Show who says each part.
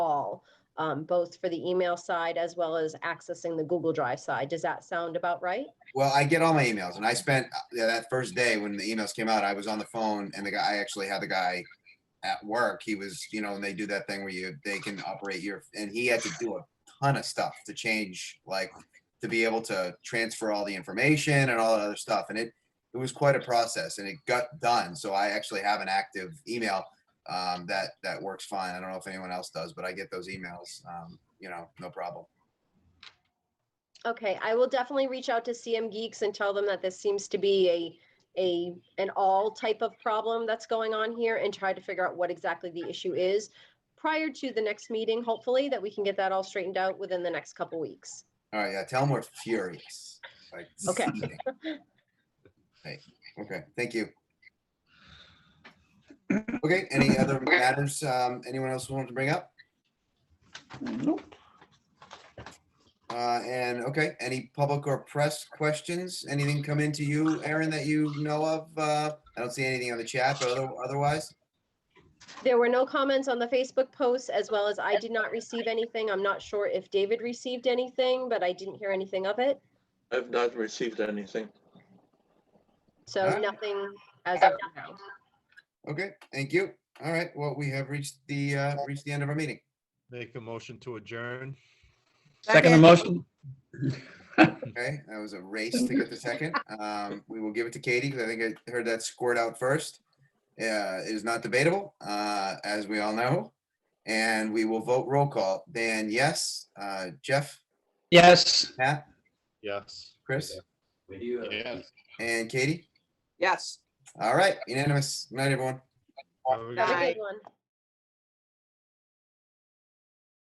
Speaker 1: well, um, both for the email side as well as accessing the Google Drive side. Does that sound about right?
Speaker 2: Well, I get all my emails and I spent, yeah, that first day when the emails came out, I was on the phone and the guy, I actually had the guy at work. He was, you know, and they do that thing where you, they can operate your, and he had to do a ton of stuff to change, like to be able to transfer all the information and all that other stuff. And it, it was quite a process and it got done. So I actually have an active email um, that, that works fine. I don't know if anyone else does, but I get those emails, um, you know, no problem.
Speaker 1: Okay, I will definitely reach out to CM Geeks and tell them that this seems to be a, a, an all type of problem that's going on here and try to figure out what exactly the issue is prior to the next meeting, hopefully, that we can get that all straightened out within the next couple weeks.
Speaker 2: All right, yeah, tell them we're furious. like,
Speaker 1: Okay.
Speaker 2: seething. Right, okay, thank you. Okay, any other matters, um, anyone else wanted to bring up?
Speaker 3: Nope.
Speaker 2: Uh, and, okay, any public or press questions? Anything come into you, Aaron, that you know of? Uh, I don't see anything on the chat, but other- otherwise,
Speaker 1: There were no comments on the Facebook posts, as well as I did not receive anything. I'm not sure if David received anything, but I didn't hear anything of it.
Speaker 4: I've not received anything.
Speaker 1: So
Speaker 2: Alright.
Speaker 1: nothing as of now.
Speaker 2: okay, thank you. All right, well, we have reached the, uh, reached the end of our meeting.
Speaker 5: Make a motion to adjourn.
Speaker 3: Second the motion?
Speaker 2: Okay, that was a race to get the second. Um, we will give it to Katie because I think I heard that scored out first. Uh, it is not debatable, uh, as we all know. And we will vote roll call. Dan, yes. Uh, Jeff,
Speaker 3: Yes.
Speaker 2: Pat,
Speaker 5: Yes.
Speaker 2: Chris,
Speaker 5: Yes.
Speaker 2: and Katie.
Speaker 6: Yes.
Speaker 2: All right, unanimous. Night, everyone.
Speaker 1: Have a Have a
Speaker 5: Aye.
Speaker 1: good one.